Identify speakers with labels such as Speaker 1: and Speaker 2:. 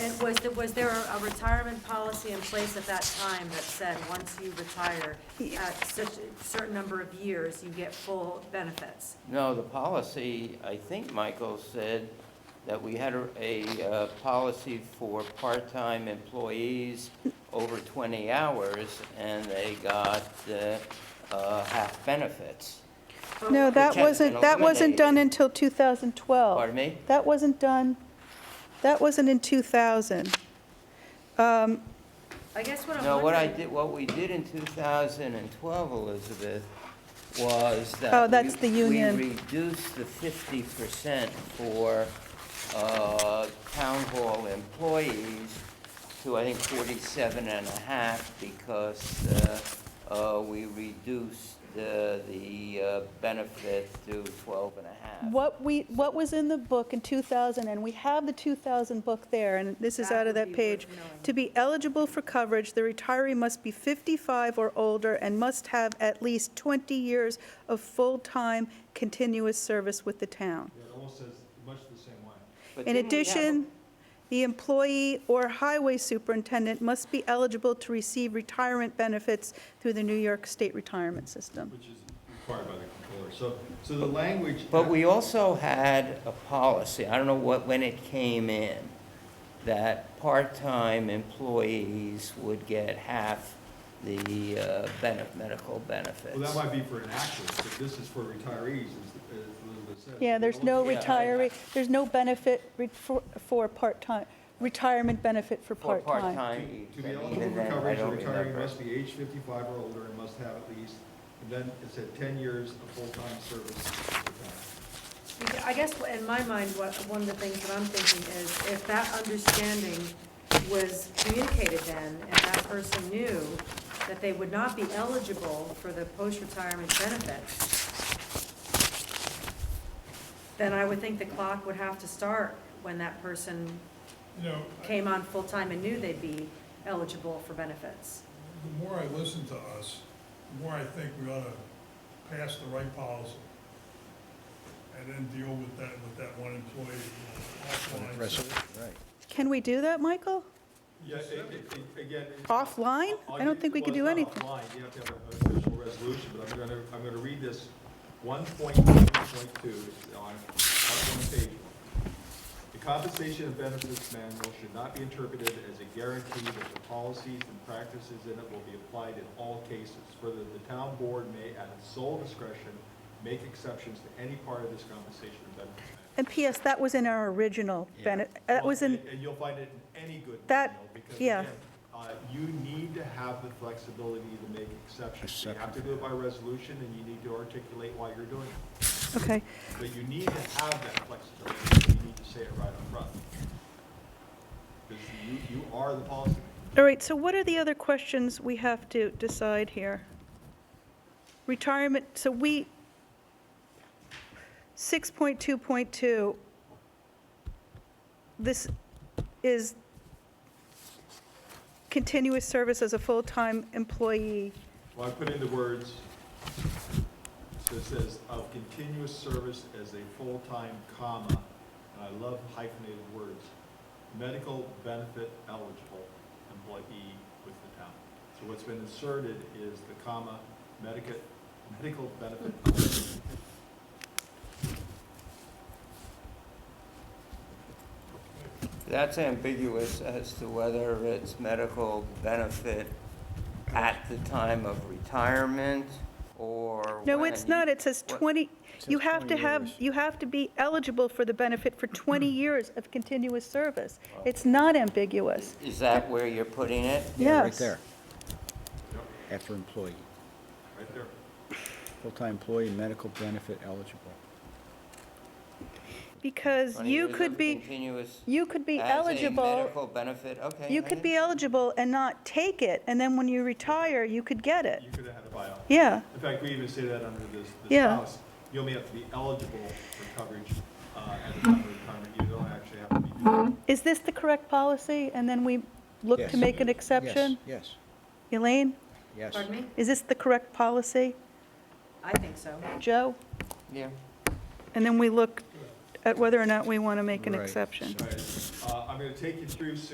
Speaker 1: is, there- was there a retirement policy in place at that time that said, once you retire, at such, a certain number of years, you get full benefits?
Speaker 2: No, the policy, I think Michael said that we had a, a uh, policy for part-time employees over 20 hours, and they got uh, uh, half benefits.
Speaker 1: But-
Speaker 3: No, that
Speaker 2: kept
Speaker 3: wasn't,
Speaker 2: and
Speaker 3: that wasn't done
Speaker 2: eliminated.
Speaker 3: until 2012.
Speaker 2: Pardon me?
Speaker 3: That wasn't done, that wasn't in 2000. Um,
Speaker 1: I guess what I'm
Speaker 2: No,
Speaker 1: wondering.
Speaker 2: what I did, what we did in 2012, Elizabeth, was that...
Speaker 3: Oh, that's
Speaker 2: we-
Speaker 3: the union.
Speaker 2: We reduced the 50% for uh, town hall employees to, I think, 47 and a half because uh, uh, we reduced uh, the uh, benefit to 12 and a half.
Speaker 3: What we, what was in the book in 2000, and we have the 2000 book there, and this is
Speaker 1: That
Speaker 3: out
Speaker 1: would
Speaker 3: of that
Speaker 1: be
Speaker 3: page.
Speaker 1: worth knowing.
Speaker 3: To be eligible for coverage, the retiree must be 55 or older and must have at least 20 years of full-time continuous service with the town.
Speaker 4: Yeah, it almost says much the same way.
Speaker 2: But
Speaker 3: In
Speaker 2: didn't we have a-
Speaker 3: addition, the employee or highway superintendent must be eligible to receive retirement benefits through the New York State Retirement System.
Speaker 4: Which is required by the controller. So, so the language.
Speaker 2: But we also had a policy, I don't know what, when it came in, that part-time employees would get half the uh, benef- medical benefits.
Speaker 4: Well, that might be for an active, but this is for retirees, as as Elizabeth said.
Speaker 3: Yeah, there's no
Speaker 2: Yeah, I-
Speaker 3: retiree, there's no benefit re- for, for part-time, retirement benefit for
Speaker 2: For
Speaker 3: part-time.
Speaker 2: part-time.
Speaker 4: To be
Speaker 2: and
Speaker 4: eligible
Speaker 2: even
Speaker 4: for
Speaker 2: then, I
Speaker 4: coverage, a
Speaker 2: don't
Speaker 4: retiree
Speaker 2: remember.
Speaker 4: must be age fifty-five or older and must have at least, and then it said ten years of full-time service. to the town.
Speaker 1: I guess in my mind, what, one of the things that I'm thinking is, if that understanding was communicated then, and that person knew that they would not be eligible for the post-retirement benefits, then I would think the clock would have to start when that person
Speaker 5: You know, I-
Speaker 1: came on full-time and knew they'd be eligible for benefits.
Speaker 5: the more I listen to us, the more I think we ought to pass the right policy and then deal with that, with that one employee offline.
Speaker 3: Can we do that, Michael?
Speaker 4: Yeah, it- it- it- again. it-
Speaker 3: Offline?
Speaker 4: I'll
Speaker 3: I don't think
Speaker 4: give-
Speaker 3: we
Speaker 4: well,
Speaker 3: could
Speaker 4: it's
Speaker 3: do
Speaker 4: not
Speaker 3: anything.
Speaker 4: offline. You have to have an official resolution, but I'm going to, I'm going to read this 1.2.2 It's on, on one page. The compensation and benefits manual should not be interpreted as a guarantee that the policies and practices in it will be applied in all cases. Further, the town board may, at its sole discretion, make exceptions to any part of this compensation and benefits manual.
Speaker 3: And PS, that was in our original benefit, that
Speaker 4: Well,
Speaker 3: was in,
Speaker 4: and- And you'll find it in any good
Speaker 3: That-
Speaker 4: manual, because
Speaker 3: yeah.
Speaker 4: again, uh, you need to have the flexibility to make exceptions. You have to do it by resolution, and you need to articulate why you're doing it.
Speaker 3: okay.
Speaker 4: But you need to have that flexibility, and you need to say it right up front. Because you, you are the policymaker.
Speaker 3: All right, so what are the other questions we have to decide here? Retirement, so we, 6.2.2, this is continuous service as a full-time employee.
Speaker 4: Well, I put in the words, so it says, of continuous service as a full-time comma, and I love hyphenated words, medical benefit eligible employee with the town. So what's been inserted is the comma, medical, medical benefit eligible.
Speaker 2: That's ambiguous as to whether it's medical benefit at the time of retirement or
Speaker 3: No,
Speaker 2: when
Speaker 3: it's
Speaker 2: you-
Speaker 3: not, it says
Speaker 2: what-
Speaker 3: 20, you have to have, you have to be eligible for the benefit for 20 years of continuous service. It's not ambiguous.
Speaker 2: Is that where you're putting it?
Speaker 6: Yeah, right
Speaker 3: Yes.
Speaker 6: there.
Speaker 4: Yep,
Speaker 6: After employee,
Speaker 4: right there.
Speaker 6: full-time employee, medical benefit eligible.
Speaker 3: Because
Speaker 2: 20
Speaker 3: you
Speaker 2: years
Speaker 3: could
Speaker 2: of
Speaker 3: be,
Speaker 2: Continuous.
Speaker 3: you could be
Speaker 2: As a
Speaker 3: eligible,
Speaker 2: medical benefit, okay.
Speaker 3: you
Speaker 2: I
Speaker 3: could be
Speaker 2: understand.
Speaker 3: eligible and not take it, and then when you retire, you could get it.
Speaker 4: You could have had a buyout.
Speaker 3: Yeah,
Speaker 4: In fact, we even say that under this, this
Speaker 3: Yeah.
Speaker 4: house. You only have to be eligible for coverage uh, at the time of retirement. You don't actually have to be doing it.
Speaker 3: is this the correct policy? And then we look to
Speaker 6: Yes.
Speaker 3: make an exception?
Speaker 6: Yes,
Speaker 3: Elaine,
Speaker 6: yes, yes.
Speaker 1: Pardon me?
Speaker 3: is this the correct policy?
Speaker 1: I think so.
Speaker 3: Joe?
Speaker 2: Yeah.
Speaker 3: And then we look at whether or not we want to make an
Speaker 6: Right.
Speaker 3: exception.
Speaker 4: All right, uh, I'm going to take you through